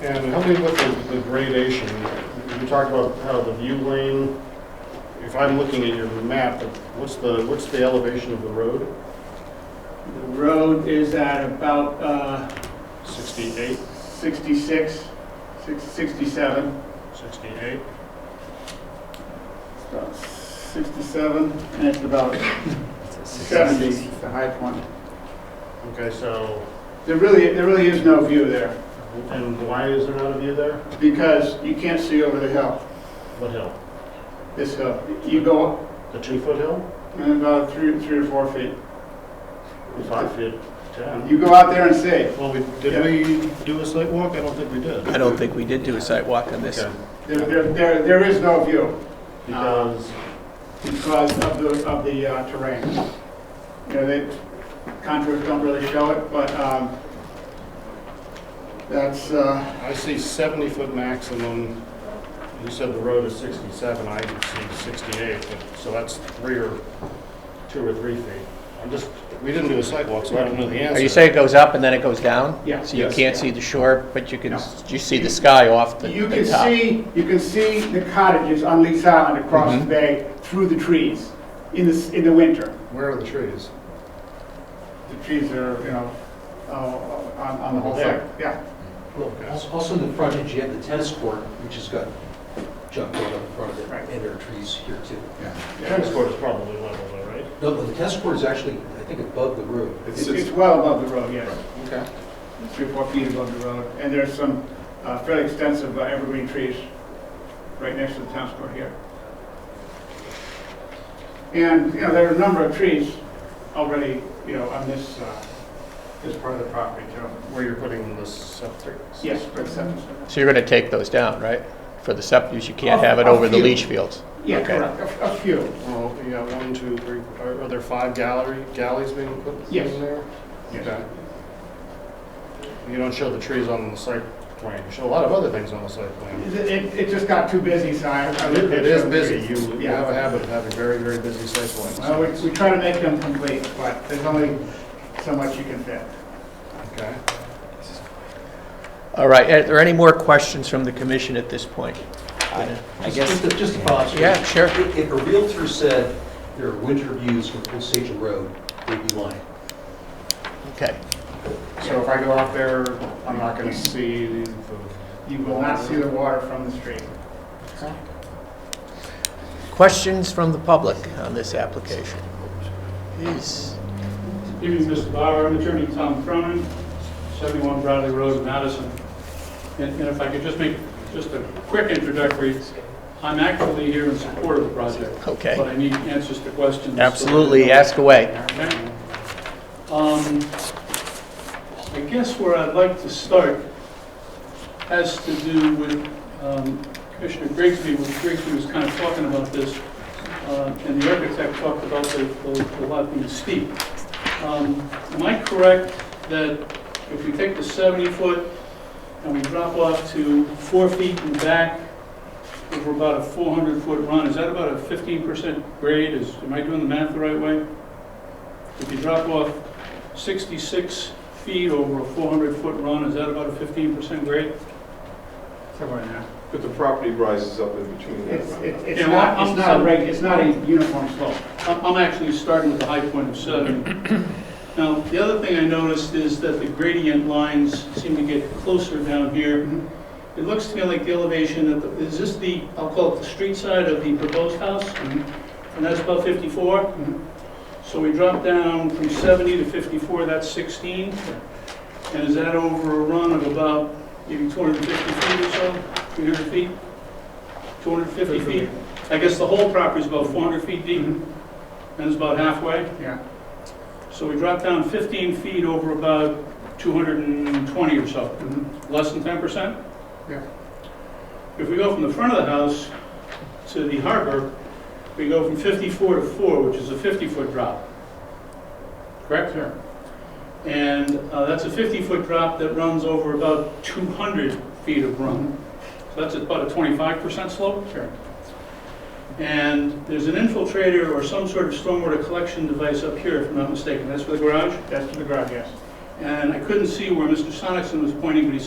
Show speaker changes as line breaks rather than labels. And help me with the- the gradation. You talked about how the view lane, if I'm looking at your map, what's the, what's the elevation of the road?
The road is at about uh,
68,
66, six- 67,
68?
It's about 67, and it's about 70, is the high point.
Okay, so,
There really, there really is no view there,
and why is there not a view there?
because you can't see over the hill,
What hill?
this hill. You go
The two-foot hill?
uh, about three, three or four feet.
Five feet, 10?
You go out there and see.
Well, we, did we do a site walk? I don't think we did.
I don't think we did do a site walk on this.
Okay.
There, there, there there is no view
Because,
because of the, of the uh, terrain. You know, the contours don't really show it, but, um, that's, uh,
I see 70-foot maximum, you said the road is 67, I see 68, but- so that's three or, two or three feet. I'm just, we didn't do a sidewalk, so I don't know the answer.
Are you saying it goes up and then it goes down?
Yeah.
So you
Yes.
can't see the shore, but you can,
No.
you see the sky off the
you
the
can
top?
see, you can see the cottages on Lee's Island across the
Mhm.
bay through the trees in the, s- in the winter.
Where are the trees?
The trees are, you know, uh, on, on the whole
There.
site, yeah.
Also- Also in the frontage, you have the tennis court, which has got junk road up in front of it,
Right.
and there are trees here too.
Tennis court is probably level though, right?
No, but the tennis court is actually, I think, above the road.
It's, it's well above the road, yes.
Okay.
three, or four feet above the road, and there's some uh, fairly extensive uh, evergreen trees right next to the town square here. And, you know, there are a number of trees already, you know, on this, uh, this part of the property too.
Where you're putting the septic?
Yes, for acceptance.
So you're going to take those down, right? For the septic, use, you can't
A-
have it
a
over the
few.
leach fields?
Yeah,
Okay.
correct, a a few,
Well, you got one, two, three, are are there five gallery, galleys being put
Yes.
in there?
yes.
Okay. You don't show the trees on the site plan, you show a lot of other things on the site plan.
It, it- it just got too busy, so I. I
It
looked at
it is
some
busy.
trees.
You you
Yeah.
have a habit of having very, very busy site
Well,
plans.
we, we try to make them complete, but there's only so much you can fit.
Okay.
All right, are there any more questions from the commission at this point?
I guess. Just a follow-up. sir.
Yeah, sure.
If if a Realtor said there are winter views from Osage Road, they'd be lying.
Okay.
So if I go out there, I'm not going to see the...
You will not see the water from the street.
Questions from the public on this application? Please.
Evening, Mr. Bauer. I'm attorney Tom Cronin, 71 Bradley Road, Madison. And and if I could just make just a quick introductory, I'm actually here in support of the project.
Okay.
But I need answers to questions.
Absolutely, ask away.
Okay. Um, I guess where I'd like to start has to do with um, Commissioner Grigsby, when Grigsby was kind of talking about this, uh, and the architect talked about the the- the lot being steep. Um, Am I correct that if we take the 70-foot and we drop off to four feet in back over about a 400-foot run, is that about a 15% grade? Is, am I doing the math the right way? If you drop off 66 feet over a 400-foot run, is that about a 15% grade?
Somewhere in there.
But the property rises up in between that.
It's, it's it's
Yeah,
not,
well,
it's
I'm
not a
sorry.
reg, it's not a uniform slope.
I'm I'm actually starting with a high point of seven. Now, the other thing I noticed is that the gradient lines seem to get closer down here. It looks to me like the elevation of, the- is this the, I'll call it the street side of the proposed house? And that's about 54? So we drop down from 70 to 54, that's 16? And is that over a run of about maybe 250 feet or so? 300 feet? 250 feet? I guess the whole property's about 400 feet deep, and it's about halfway.
Yeah,
So we drop down 15 feet over about 220 or so, less than 10%?
Yeah.
If we go from the front of the house to the harbor, we go from 54 to 4, which is a 50-foot drop. Correct? Sure. And uh, that's a 50-foot drop that runs over about 200 feet of run. So that's about a 25% slope? Sure. And there's an infiltrator or some sort of stormwater collection device up here, if I'm not mistaken. That's for the garage?
that's the garage, yes.
And I couldn't see where Mr. Sonicson was pointing, but he